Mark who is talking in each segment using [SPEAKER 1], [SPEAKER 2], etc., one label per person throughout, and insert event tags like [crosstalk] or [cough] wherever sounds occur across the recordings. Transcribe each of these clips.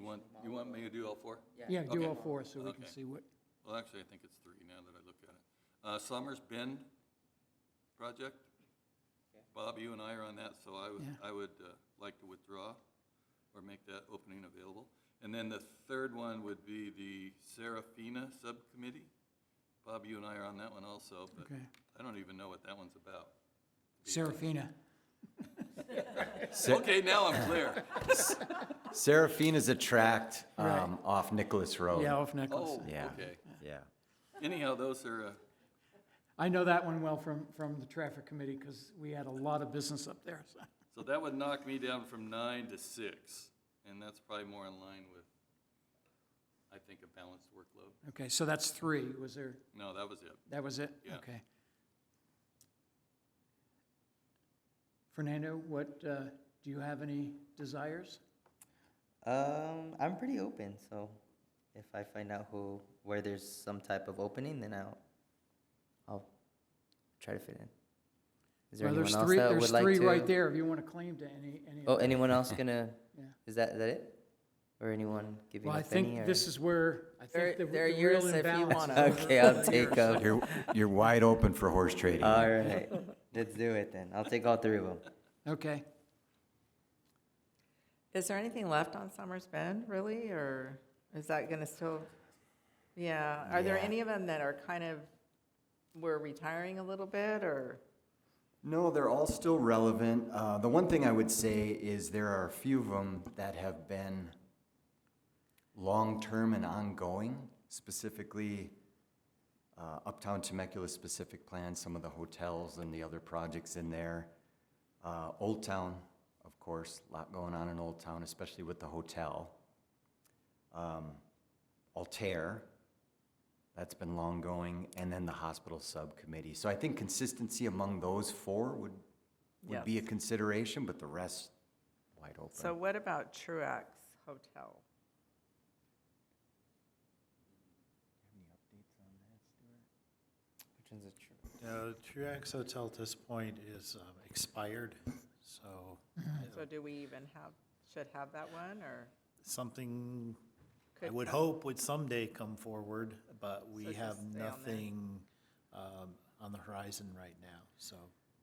[SPEAKER 1] want, Um, you want me to do all four?
[SPEAKER 2] Yeah, do
[SPEAKER 1] Okay.
[SPEAKER 2] all four so we can
[SPEAKER 1] Okay.
[SPEAKER 2] see what,
[SPEAKER 1] Well, actually, I think it's three now that I look at it. Uh, Summers Bend project. Bob, you and I are on that, so I would,
[SPEAKER 2] Yeah.
[SPEAKER 1] I would uh, like to withdraw or make that opening available. And then the third one would be the Serafina Subcommittee. Bob, you and I are on that one also, but
[SPEAKER 2] Okay.
[SPEAKER 1] I don't even know what that one's about.
[SPEAKER 2] Serafina.
[SPEAKER 1] Okay, now I'm clear.
[SPEAKER 3] Serafina's a tract
[SPEAKER 2] Right.
[SPEAKER 3] um, off Nicholas Road.
[SPEAKER 2] Yeah, off Nicholas.
[SPEAKER 1] Oh,
[SPEAKER 3] Yeah.
[SPEAKER 1] okay.
[SPEAKER 3] Yeah.
[SPEAKER 1] Anyhow, those are, uh,
[SPEAKER 2] I know that one well from, from the traffic committee because we had a lot of business up there, so.
[SPEAKER 1] so that would knock me down from nine to six, and that's probably more in line with, I think, a balanced workload.
[SPEAKER 2] Okay, so that's three. Was there,
[SPEAKER 1] No, that was it.
[SPEAKER 2] that was it?
[SPEAKER 1] Yeah.
[SPEAKER 2] Okay. Fernando, what, uh, do you have any desires?
[SPEAKER 4] Um, I'm pretty open, so if I find out who where there's some type of opening, then I'll I'll try to fit in. Is there
[SPEAKER 2] Well,
[SPEAKER 4] anyone
[SPEAKER 2] there's
[SPEAKER 4] else
[SPEAKER 2] three-
[SPEAKER 4] that would like
[SPEAKER 2] There's
[SPEAKER 4] to?
[SPEAKER 2] three right there if you want to claim to any, any. of
[SPEAKER 4] Oh,
[SPEAKER 2] them.
[SPEAKER 4] anyone else gonna?
[SPEAKER 2] [laughs] Yeah.
[SPEAKER 4] Is that is that it? Or anyone giving
[SPEAKER 2] Well, I
[SPEAKER 4] up any?
[SPEAKER 2] think
[SPEAKER 4] or-
[SPEAKER 2] this is where, I
[SPEAKER 5] They're-
[SPEAKER 2] think the the
[SPEAKER 5] they're
[SPEAKER 2] real
[SPEAKER 5] yours if you
[SPEAKER 2] imbalance.
[SPEAKER 5] wanna.
[SPEAKER 2] is
[SPEAKER 4] Okay,
[SPEAKER 2] over
[SPEAKER 4] I'll
[SPEAKER 2] here,
[SPEAKER 4] take
[SPEAKER 2] so-
[SPEAKER 4] up.
[SPEAKER 3] You're, you're wide open for horse trading.
[SPEAKER 4] All right, let's do it then. I'll take all three of them.
[SPEAKER 2] Okay.
[SPEAKER 5] Is there anything left on Summers Bend, really, or is that gonna still? Yeah, are there
[SPEAKER 3] Yeah.
[SPEAKER 5] any of them that are kind of, we're retiring a little bit, or?
[SPEAKER 3] No, they're all still relevant. Uh, the one thing I would say is there are a few of them that have been long-term and ongoing, specifically uh, Uptown Temecula specific plan, some of the hotels and the other projects in there. Uh, Old Town, of course, a lot going on in Old Town, especially with the hotel. Um, Altair, that's been long going, and then the hospital subcommittee. So I think consistency among those four would, would be a consideration, but the rest wide open.
[SPEAKER 5] So what about Truax Hotel?
[SPEAKER 4] Which one's a true?
[SPEAKER 6] No, Truax Hotel at this point is um, expired, so
[SPEAKER 5] So do we even have, should have that one, or?
[SPEAKER 6] something I
[SPEAKER 5] could-
[SPEAKER 6] would hope would someday come forward, but
[SPEAKER 5] So
[SPEAKER 6] we
[SPEAKER 5] just
[SPEAKER 6] have
[SPEAKER 5] stay on there.
[SPEAKER 6] nothing um, on the horizon right now, so.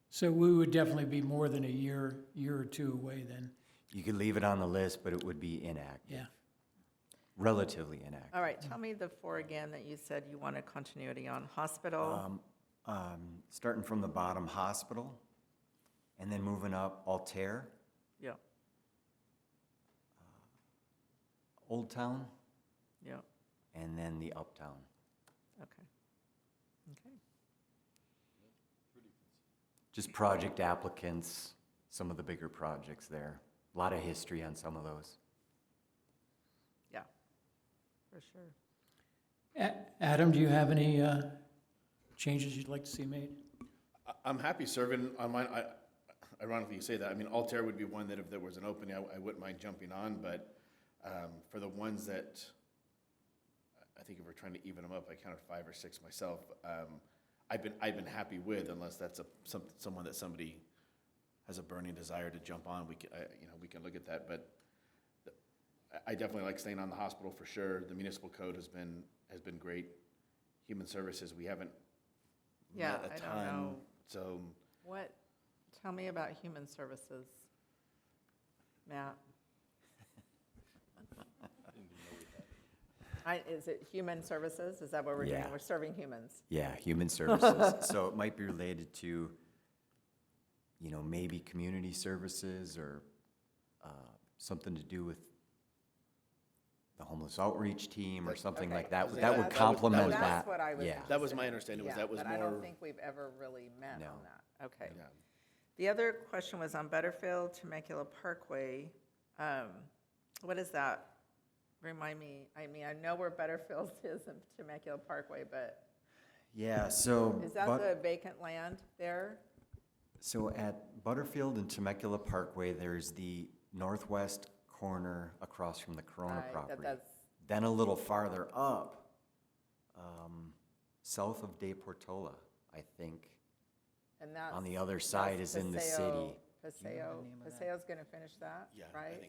[SPEAKER 2] So we would definitely be more than a year, year or two away then,
[SPEAKER 3] You could leave it on the list, but it would be inactive,
[SPEAKER 2] yeah.
[SPEAKER 3] relatively inactive.
[SPEAKER 5] All right, tell me the four again that you said you wanted continuity on, hospital,
[SPEAKER 3] Um, um, Starting from the bottom, hospital, and then moving up, Altair,
[SPEAKER 5] yeah,
[SPEAKER 3] Old Town,
[SPEAKER 5] yeah,
[SPEAKER 3] and then the Uptown.
[SPEAKER 5] okay. Okay,
[SPEAKER 3] Just project applicants, some of the bigger projects there. A Lot of history on some of those.
[SPEAKER 5] yeah, for sure.
[SPEAKER 2] A- Adam, do you have any uh, changes you'd like to see made?
[SPEAKER 7] I- I'm happy serving on mine. I, ironically, you say that. I mean, Altair would be one that if there was an opening, I, I wouldn't mind jumping on. But um, for the ones that I think if we're trying to even them up, I counted five or six myself. Um, I've been I've been happy with, unless that's a some, someone that somebody has a burning desire to jump on. We can, I, you know we can look at that. But I- I definitely like staying on the hospital for sure. The municipal code has been has been great. Human services, we haven't
[SPEAKER 5] Yeah,
[SPEAKER 7] met a
[SPEAKER 5] I don't
[SPEAKER 7] ton,
[SPEAKER 5] know.
[SPEAKER 7] So
[SPEAKER 5] What, tell me about human services, Matt. I, is it human services? Is that what we're doing?
[SPEAKER 3] Yeah.
[SPEAKER 5] We're serving humans.
[SPEAKER 3] Yeah,
[SPEAKER 5] [laughs]
[SPEAKER 3] human services. So it might be related to, you know, maybe community services or uh, something to do with the homeless outreach team or something like that.
[SPEAKER 7] Okay.
[SPEAKER 3] That would
[SPEAKER 7] That would-
[SPEAKER 3] complement that.
[SPEAKER 5] That's what I was
[SPEAKER 3] Yeah.
[SPEAKER 7] That was my understanding, was
[SPEAKER 5] Yeah,
[SPEAKER 7] that was
[SPEAKER 5] But I don't
[SPEAKER 7] more-
[SPEAKER 5] think we've ever really met on
[SPEAKER 3] No.
[SPEAKER 5] that. Okay. The other question was on Butterfield Temecula Parkway. Um, What is that? Remind me, I mean, I know where Butterfield [laughs] is in Temecula Parkway, but
[SPEAKER 3] Yeah, so.
[SPEAKER 5] is that
[SPEAKER 3] but-
[SPEAKER 5] the vacant land there?
[SPEAKER 3] So at Butterfield and Temecula Parkway, there's the northwest corner across from the Corona
[SPEAKER 5] Right, that-
[SPEAKER 3] property.
[SPEAKER 5] that's-
[SPEAKER 3] Then a little farther up, um, south of De Portola, I think.
[SPEAKER 5] And that's.
[SPEAKER 3] On the other side
[SPEAKER 5] that's
[SPEAKER 3] is in the
[SPEAKER 5] Paseo-
[SPEAKER 3] city.
[SPEAKER 5] Paseo, Paseo's gonna finish that,
[SPEAKER 7] Yeah, I
[SPEAKER 5] right?
[SPEAKER 7] think